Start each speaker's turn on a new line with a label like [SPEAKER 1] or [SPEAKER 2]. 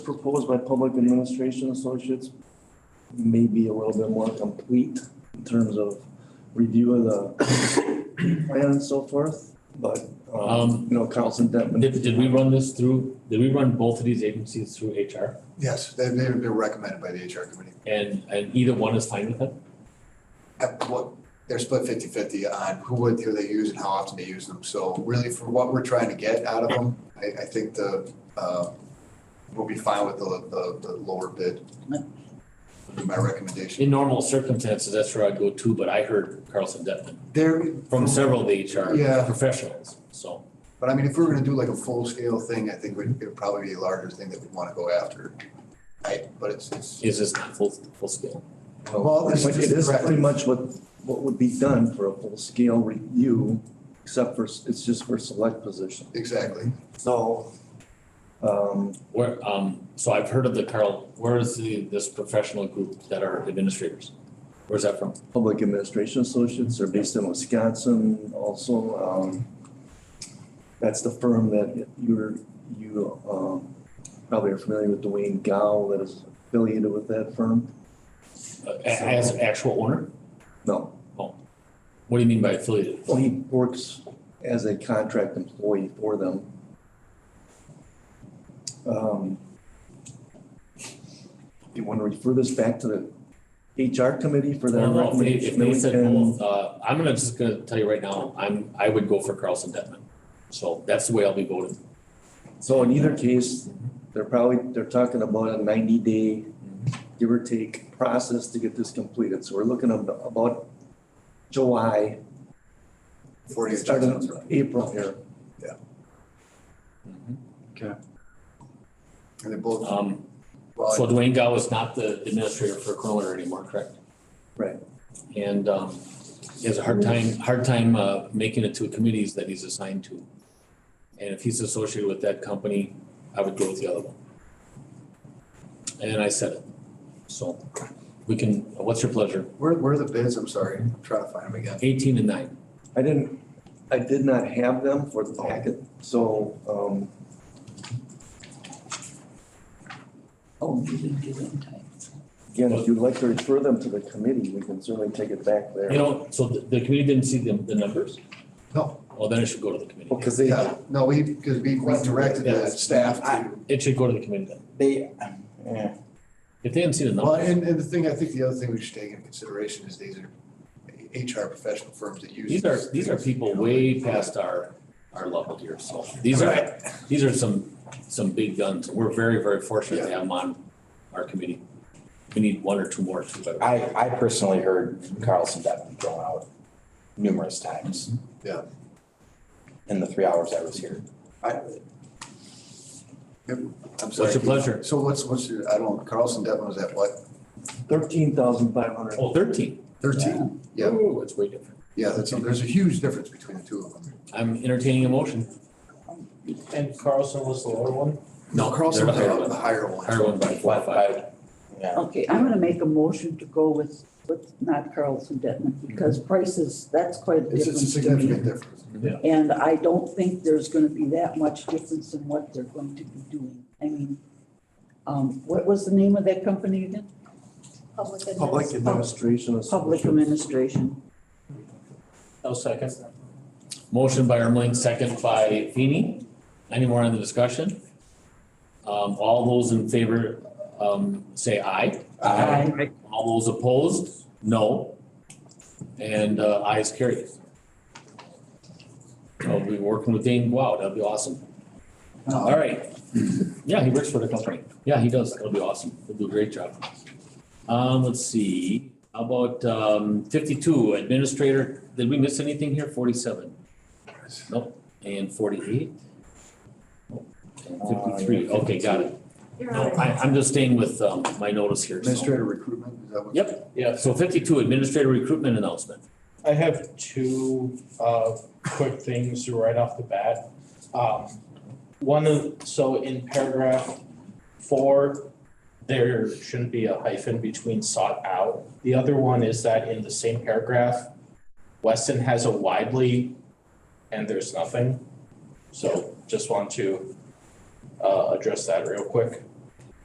[SPEAKER 1] proposed by Public Administration Associates may be a little bit more complete in terms of review of the plan and so forth, but, um,
[SPEAKER 2] Um,
[SPEAKER 1] you know, Carlson Detman.
[SPEAKER 2] Did, did we run this through, did we run both of these agencies through HR?
[SPEAKER 3] Yes, they, they they're recommended by the HR committee.
[SPEAKER 2] And, and either one is fine with it?
[SPEAKER 3] At what, they're split 50/50 on who, would- who they use and how often they use them. So really for what we're trying to get out of them, I, I think the, uh, we'll be fine with the, the, the lower bid. Would be My recommendation.
[SPEAKER 2] In normal circumstances, that's where I go to, but I heard Carlson Detman
[SPEAKER 3] There,
[SPEAKER 2] from several of the HR
[SPEAKER 3] Yeah.
[SPEAKER 2] professionals, so.
[SPEAKER 3] but I mean, if we we're gonna do like a full scale thing, I think would- it would probably be a larger thing that we'd wanna go after. I, but it's, it's,
[SPEAKER 2] Is this not full, full scale?
[SPEAKER 3] well,
[SPEAKER 1] But
[SPEAKER 3] this
[SPEAKER 1] it
[SPEAKER 3] is
[SPEAKER 1] is pretty
[SPEAKER 3] correct.
[SPEAKER 1] much what, what would be done for a full-scale review, except for, s- it's just for select position.
[SPEAKER 3] exactly.
[SPEAKER 1] So, um,
[SPEAKER 2] Where, um, so I've heard of the Carl, where is the, this professional group that are administrators? Where's that from?
[SPEAKER 1] Public Administration Associates are based in Wisconsin also. um, That's the firm that you're, you um, probably are familiar with Dwayne Gow that is affiliated with that firm.
[SPEAKER 2] Uh, a- As an actual owner?
[SPEAKER 1] No,
[SPEAKER 2] What do you mean by affiliated?
[SPEAKER 1] well, he works as a contract employee for them. Um, You want to refer this back to the HR committee for their
[SPEAKER 2] Well, no, if they- if
[SPEAKER 1] recommendation?
[SPEAKER 2] they
[SPEAKER 1] Then we
[SPEAKER 2] said
[SPEAKER 1] can-
[SPEAKER 2] both, uh, I'm gonna, just gonna tell you right now, I'm, I would go for Carlson Detman. So that's the way I'll be voting.
[SPEAKER 1] So in either case, they're probably, they're talking about a ninety day, give or take, process to get this completed. So we're looking at about July,
[SPEAKER 3] Forty.
[SPEAKER 1] starting in April here.
[SPEAKER 3] And they both,
[SPEAKER 2] Um,
[SPEAKER 3] well,
[SPEAKER 2] so Dwayne Gow is not the administrator for Corolla anymore, correct?
[SPEAKER 1] Right.
[SPEAKER 2] And, um, he has a hard time, hard time, uh, making it to committees that he's assigned to. And if he's associated with that company, I would go with the other one. And I said it. So we can, what's your pleasure?
[SPEAKER 3] where, where are the bids? I'm sorry, I'm trying to find them again.
[SPEAKER 2] Eighteen and nine.
[SPEAKER 1] I didn't, I did not have them for the packet, so, um,
[SPEAKER 4] Oh, you didn't do it in time.
[SPEAKER 1] again, if you'd like to refer them to the committee, we can certainly take it back there.
[SPEAKER 2] You know, so the, the committee didn't see the, the numbers?
[SPEAKER 3] No.
[SPEAKER 2] Well, then it should go to the committee.
[SPEAKER 1] Because they,
[SPEAKER 3] Yeah, no, we, because we we directed the staff to,
[SPEAKER 2] It should go to the committee then.
[SPEAKER 5] They, eh, yeah,
[SPEAKER 2] If they didn't see the
[SPEAKER 3] well,
[SPEAKER 2] numbers,
[SPEAKER 3] and, and the thing, I think the other thing we should take into consideration is these are HR professional firms that use.
[SPEAKER 2] these are,
[SPEAKER 3] this.
[SPEAKER 2] these are people way past our, our level here, so these are,
[SPEAKER 3] Right.
[SPEAKER 2] these are some, some big guns. We're very, very fortunate to have them on our committee. We need one or two more too, but
[SPEAKER 5] I, I personally heard Carlson Devon thrown out numerous times.
[SPEAKER 3] Yeah.
[SPEAKER 5] In the three hours I was here.
[SPEAKER 3] I'm sorry.
[SPEAKER 2] what's your pleasure?
[SPEAKER 3] So what's, what's your, I don't, Carlson Devon was at what,
[SPEAKER 1] thirteen thousand five hundred.
[SPEAKER 2] Oh, thirteen.
[SPEAKER 3] thirteen? Yeah.
[SPEAKER 2] Ooh, it's way different.
[SPEAKER 3] Yeah, that's, there's a huge difference between the two of them.
[SPEAKER 2] I'm entertaining a motion.
[SPEAKER 6] And Carlson was the lower one?
[SPEAKER 2] No,
[SPEAKER 3] Carlson was
[SPEAKER 2] they're the higher
[SPEAKER 3] the
[SPEAKER 2] one.
[SPEAKER 3] higher one.
[SPEAKER 2] Higher one by four or
[SPEAKER 5] What,
[SPEAKER 2] five.
[SPEAKER 5] by, yeah,
[SPEAKER 4] Okay, I'm gonna make a motion to go with, with not Carlson Detman, because prices, that's quite a
[SPEAKER 3] It's it's a
[SPEAKER 4] difference to me.
[SPEAKER 3] significant difference.
[SPEAKER 4] And I don't think there's gonna be that much difference in what they're going to be doing. I mean, um, what was the name of that company again?
[SPEAKER 7] Public administration.
[SPEAKER 1] Public Administration
[SPEAKER 4] Public
[SPEAKER 1] Associates.
[SPEAKER 4] Administration.
[SPEAKER 6] No second.
[SPEAKER 2] Motion by Ermeling, second by Feeny. Any more on the discussion? Um, all those in favor, um, say aye.
[SPEAKER 4] Aye.
[SPEAKER 2] All those opposed, no. And, uh, ayes carried. I'll be working with Dane Wow, that'll be awesome. All right. Yeah, he works for the company. Yeah, he does. That'll be awesome. He'll do a great job. Um, let's see, How about, um, fifty-two administrator, did we miss anything here? Forty-seven? Nope, and forty-eight? And
[SPEAKER 5] Uh,
[SPEAKER 2] Fifty-three, okay, got it.
[SPEAKER 7] Your
[SPEAKER 2] No,
[SPEAKER 7] Honor.
[SPEAKER 2] I, I'm just staying with, um, my notice here. so-
[SPEAKER 3] Administrator recruitment, is that what?
[SPEAKER 2] Yep.
[SPEAKER 6] Yes.
[SPEAKER 2] So fifty-two, administrator recruitment announcement.
[SPEAKER 6] I have two uh quick things right off the bat. Um one of, so in paragraph four, there shouldn't be a hyphen between sought out. The other one is that in the same paragraph, Weston has a widely and there's nothing. So just want to uh address that real quick.